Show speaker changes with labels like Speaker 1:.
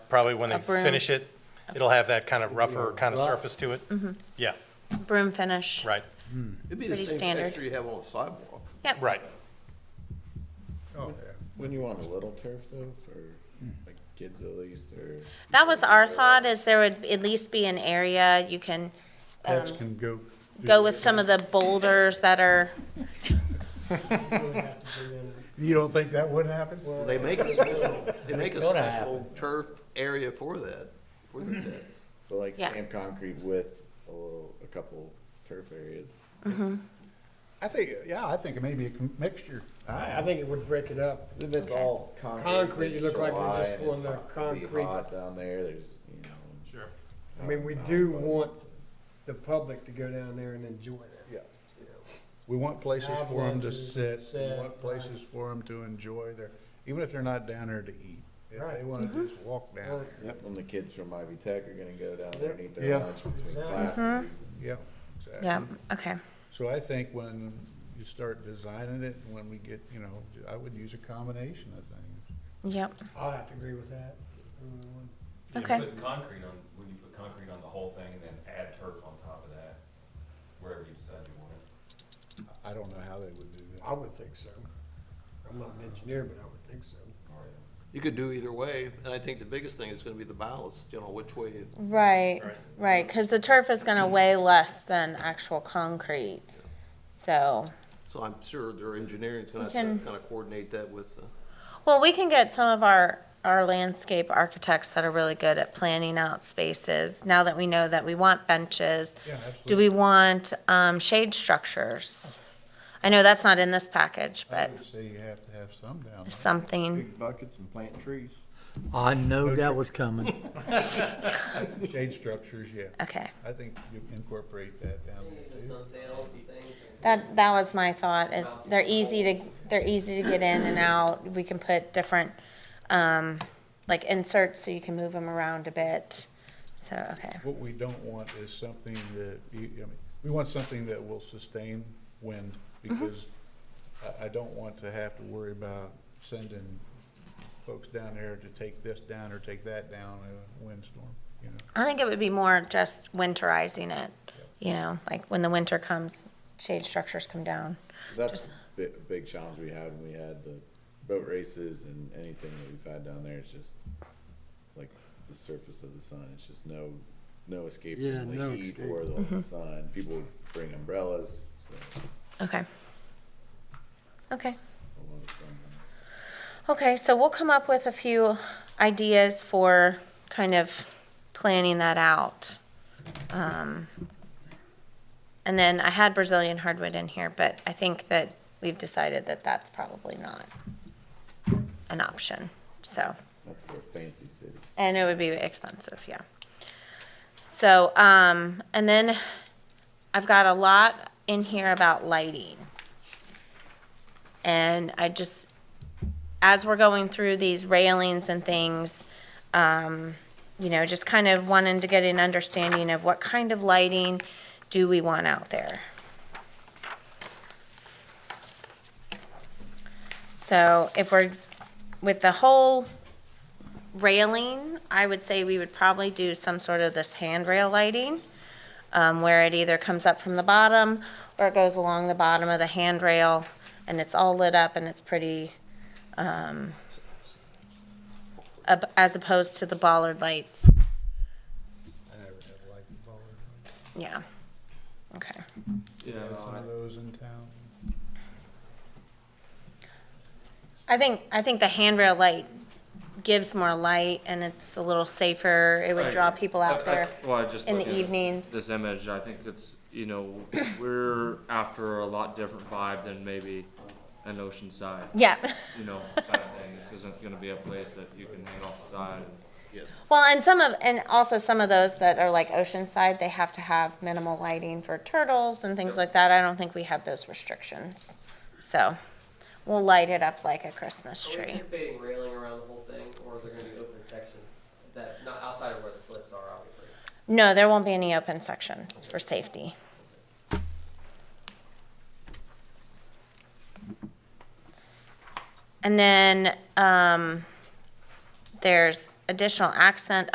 Speaker 1: probably when they
Speaker 2: A broom.
Speaker 1: finish it, it'll have that kind of rougher kind of
Speaker 3: Rough.
Speaker 1: surface to it.
Speaker 2: Mm-hmm.
Speaker 1: Yeah,
Speaker 2: broom finish.
Speaker 1: right,
Speaker 4: It'd be the
Speaker 2: Pretty
Speaker 4: same
Speaker 2: standard.
Speaker 4: texture you have on the sidewalk.
Speaker 2: Yep.
Speaker 1: right.
Speaker 2: Um,
Speaker 5: Oh,
Speaker 3: When you want a little turf though, for like kids at least, or
Speaker 2: That was our thought, is there would at least be an area you can
Speaker 5: Pets can go.
Speaker 1: Mm-hmm.
Speaker 2: go with some of the boulders that are,
Speaker 5: You don't think that would happen?
Speaker 4: They make a special, they make a
Speaker 6: It's gonna
Speaker 4: special turf area for that, for the pits.
Speaker 3: but like
Speaker 2: Yeah.
Speaker 3: stamp concrete with a little, a couple turf areas.
Speaker 5: I think, yeah, I think maybe a com- mixture.
Speaker 6: I, I think it would break it up.
Speaker 3: If it's all
Speaker 6: Concrete,
Speaker 3: concrete,
Speaker 6: you
Speaker 3: it's
Speaker 6: look like you're
Speaker 3: July
Speaker 6: just
Speaker 3: and it's
Speaker 6: on the
Speaker 3: hot, it'll be
Speaker 6: concrete.
Speaker 3: hot down there, there's, you know.
Speaker 1: Sure.
Speaker 6: I mean, we
Speaker 3: not
Speaker 6: do
Speaker 3: much.
Speaker 6: want the public to go down there and enjoy it.
Speaker 5: Yeah. We want places
Speaker 6: Have
Speaker 5: for them to
Speaker 6: lunches,
Speaker 5: sit, we
Speaker 6: sit,
Speaker 5: want places for them to enjoy their, even if they're not down there to eat. If they
Speaker 6: Right.
Speaker 5: wanna
Speaker 2: Mm-hmm.
Speaker 5: just walk down
Speaker 6: Well,
Speaker 5: there,
Speaker 3: Yep, and the kids from Ivy Tech are gonna go down there and eat
Speaker 5: Yeah.
Speaker 3: their lunch between
Speaker 6: Exactly.
Speaker 3: classes.
Speaker 5: yeah. exactly.
Speaker 2: yeah, okay.
Speaker 5: So I think when you start designing it, when we get, you know, I would use a combination of things.
Speaker 2: Yep,
Speaker 6: I'll have to agree with that. Mm,
Speaker 7: You
Speaker 2: Okay.
Speaker 7: put concrete on, when you put concrete on the whole thing and then add turf on top of that, wherever you decide you want it.
Speaker 5: I don't know how they would do that.
Speaker 6: I would think so. I'm not an engineer, but I would think so.
Speaker 7: Or, uh,
Speaker 4: You could do either way, and I think the biggest thing is gonna be the balance, you know, which way, you-
Speaker 2: Right,
Speaker 1: Right.
Speaker 2: right, because the turf is gonna weigh less than actual concrete, so.
Speaker 4: so I'm sure their engineering's gonna
Speaker 2: We
Speaker 4: have to
Speaker 2: can-
Speaker 4: kinda coordinate that with, uh,
Speaker 2: Well, we can get some of our, our landscape architects that are really good at planning out spaces, now that we know that we want benches.
Speaker 5: Yeah,
Speaker 2: Do
Speaker 1: Mm-hmm.
Speaker 5: absolutely.
Speaker 2: we want, um, shade structures? I know that's not in this package,
Speaker 5: I
Speaker 2: but
Speaker 1: Mm-hmm.
Speaker 5: would say you have to have some down there.
Speaker 2: something.
Speaker 3: buckets and plant trees.
Speaker 8: I know that was coming.
Speaker 5: Shade structures, yeah.
Speaker 2: Okay,
Speaker 5: I think you incorporate that down there too.
Speaker 2: that, that was my thought, is they're easy to, they're easy to get in and out, we can put different, um, like inserts so you can move them around a bit, so, okay.
Speaker 5: What we don't want is something that, you, I mean, we want something that will sustain wind because I, I don't want to have to worry about sending folks down there to take this down or take that down in a windstorm, you know?
Speaker 2: I think it would be more just winterizing it, you know, like when the winter comes, shade structures come down.
Speaker 3: That's
Speaker 2: Just-
Speaker 3: a bi- big challenge we had when we had the boat races and anything that we've had down there, it's just like the surface of the sun, it's just no, no escape
Speaker 6: Yeah,
Speaker 3: from
Speaker 6: no
Speaker 3: the heat
Speaker 6: escape.
Speaker 3: or the sun. People would bring umbrellas, so
Speaker 2: Okay. Okay.
Speaker 3: a lot of fun.
Speaker 2: Okay, so we'll come up with a few ideas for kind of planning that out. Um, And then I had Brazilian hardwood in here, but I think that we've decided that that's probably not an option, so.
Speaker 3: That's for a fancy city.
Speaker 2: And it would be expensive, yeah. So, um, and then I've got a lot in here about lighting. And I just, as we're going through these railings and things, um, you know, just kind of wanting to get an understanding of what kind of lighting do we want out there? So if we're, with the whole railing, I would say we would probably do some sort of this handrail lighting, um, where it either comes up from the bottom or it goes along the bottom of the handrail and it's all lit up and it's pretty, um, ab- as opposed to the bollard lights.
Speaker 5: I never have liked the ballroom.
Speaker 2: Yeah. Okay.
Speaker 5: Have some of those in town.
Speaker 2: I think, I think the handrail light gives more light and it's a little safer. It would
Speaker 9: Right. Uh,
Speaker 2: draw people
Speaker 9: I- I-
Speaker 2: out there.
Speaker 9: Well, I just
Speaker 2: in
Speaker 9: look
Speaker 2: the
Speaker 9: at this-
Speaker 2: evenings.
Speaker 9: This image, I think it's, you know, we're after a lot different vibe than maybe an oceanside,
Speaker 2: Yeah.
Speaker 9: you know, kind of thing. This isn't gonna be a place that you can hang off the side.
Speaker 2: Well, and some of, and also some of those that are like Oceanside, they have to have minimal lighting for turtles and things like that. I don't think we have those restrictions. So we'll light it up like a Christmas
Speaker 9: Oh,
Speaker 10: Are we
Speaker 2: tree.
Speaker 10: anticipating railing around the whole thing, or is there gonna be open sections that, not outside of where the slips are, obviously?
Speaker 2: No, there won't be any open sections for safety. And then, um, there's additional accent